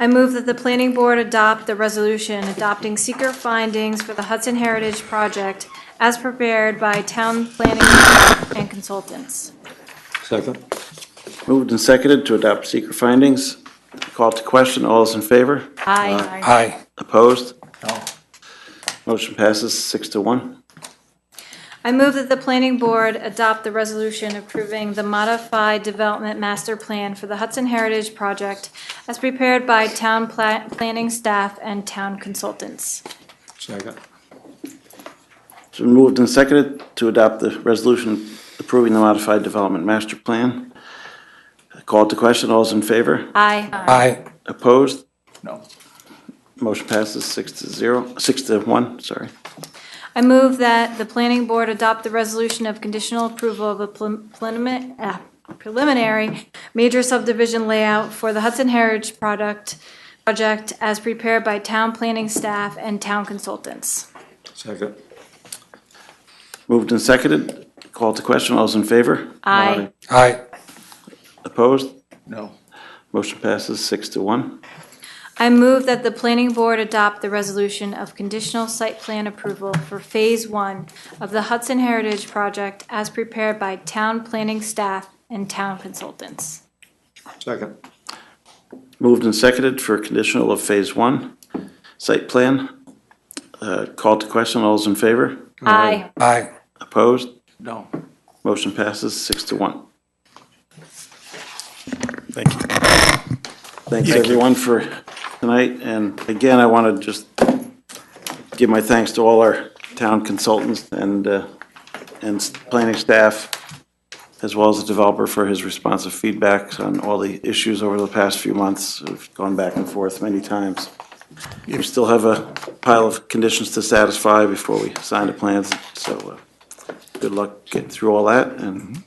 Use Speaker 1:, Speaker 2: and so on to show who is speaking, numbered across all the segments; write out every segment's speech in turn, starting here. Speaker 1: I move that the planning board adopt the resolution adopting seeker findings for the Hudson Heritage Project as prepared by town planning and consultants.
Speaker 2: Second.
Speaker 3: Moved and seconded to adopt seeker findings. Call to question, all those in favor?
Speaker 1: Aye.
Speaker 2: Aye.
Speaker 3: Opposed?
Speaker 2: No.
Speaker 3: Motion passes six to one.
Speaker 1: I move that the planning board adopt the resolution approving the modified development master plan for the Hudson Heritage Project as prepared by town pla- planning staff and town consultants.
Speaker 2: Second.
Speaker 3: It's been moved and seconded to adopt the resolution approving the modified development master plan. Call to question, all those in favor?
Speaker 1: Aye.
Speaker 2: Aye.
Speaker 3: Opposed?
Speaker 2: No.
Speaker 3: Motion passes six to zero, six to one, sorry.
Speaker 1: I move that the planning board adopt the resolution of conditional approval of a prelim- prelimin- ah, preliminary major subdivision layout for the Hudson Heritage product, project as prepared by town planning staff and town consultants.
Speaker 2: Second.
Speaker 3: Moved and seconded. Call to question, all those in favor?
Speaker 1: Aye.
Speaker 2: Aye.
Speaker 3: Opposed?
Speaker 2: No.
Speaker 3: Motion passes six to one.
Speaker 1: I move that the planning board adopt the resolution of conditional site plan approval for Phase One of the Hudson Heritage project as prepared by town planning staff and town consultants.
Speaker 2: Second.
Speaker 3: Moved and seconded for conditional of Phase One site plan. Uh, Call to question, all those in favor?
Speaker 1: Aye.
Speaker 2: Aye.
Speaker 3: Opposed?
Speaker 2: No.
Speaker 3: Motion passes six to one.
Speaker 4: Thank you.
Speaker 3: Thanks, everyone, for tonight. And again, I want to just give my thanks to all our town consultants and, uh, and s- planning staff, as well as the developer for his responsive feedback on all the issues over the past few months. We've gone back and forth many times. We still have a pile of conditions to satisfy before we sign the plans, so uh, good luck getting through all that, and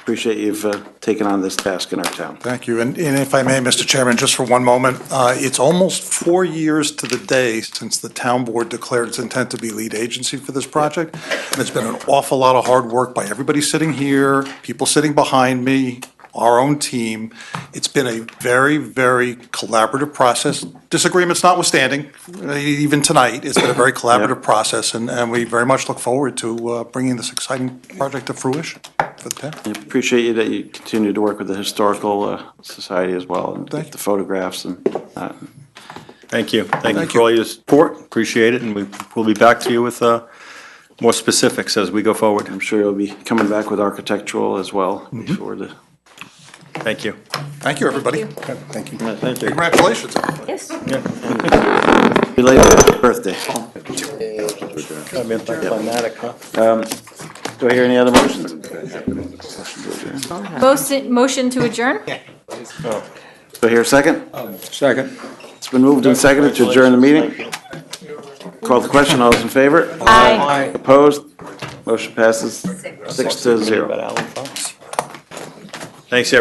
Speaker 3: appreciate you've uh, taken on this task in our town.
Speaker 4: Thank you. And and if I may, Mr. Chairman, just for one moment, uh, it's almost four years to the day since the town board declared its intent to be lead agency for this project. And it's been an awful lot of hard work by everybody sitting here, people sitting behind me, our own team. It's been a very, very collaborative process, disagreements notwithstanding, uh, even tonight. It's been a very collaborative process, and and we very much look forward to uh, bringing this exciting project to fruition for the town.
Speaker 3: I Appreciate you that you continue to work with the Historical uh, Society as well, and
Speaker 4: Thank
Speaker 3: get the photographs and, uh,
Speaker 5: Thank you. Thank you
Speaker 4: Thank
Speaker 5: for
Speaker 4: you.
Speaker 5: all your support. Appreciate it, and we- we'll be back to you with uh, more specifics as we go forward.
Speaker 3: I'm sure you'll be coming back with architectural as well before the.
Speaker 5: Thank you.
Speaker 4: Thank you, everybody.
Speaker 1: Thank
Speaker 4: Thank you.
Speaker 3: Thank you.
Speaker 4: Congratulations. Oh,
Speaker 1: Yes.
Speaker 3: Related birthday. Um, Do I hear any other motions?
Speaker 1: Motion to adjourn?
Speaker 3: Do I hear a second?
Speaker 2: Second.
Speaker 3: It's been moved and seconded to adjourn the meeting. Call the question, all those in favor?
Speaker 1: Aye.
Speaker 3: Opposed? Motion passes six to zero.
Speaker 5: Thanks, everyone.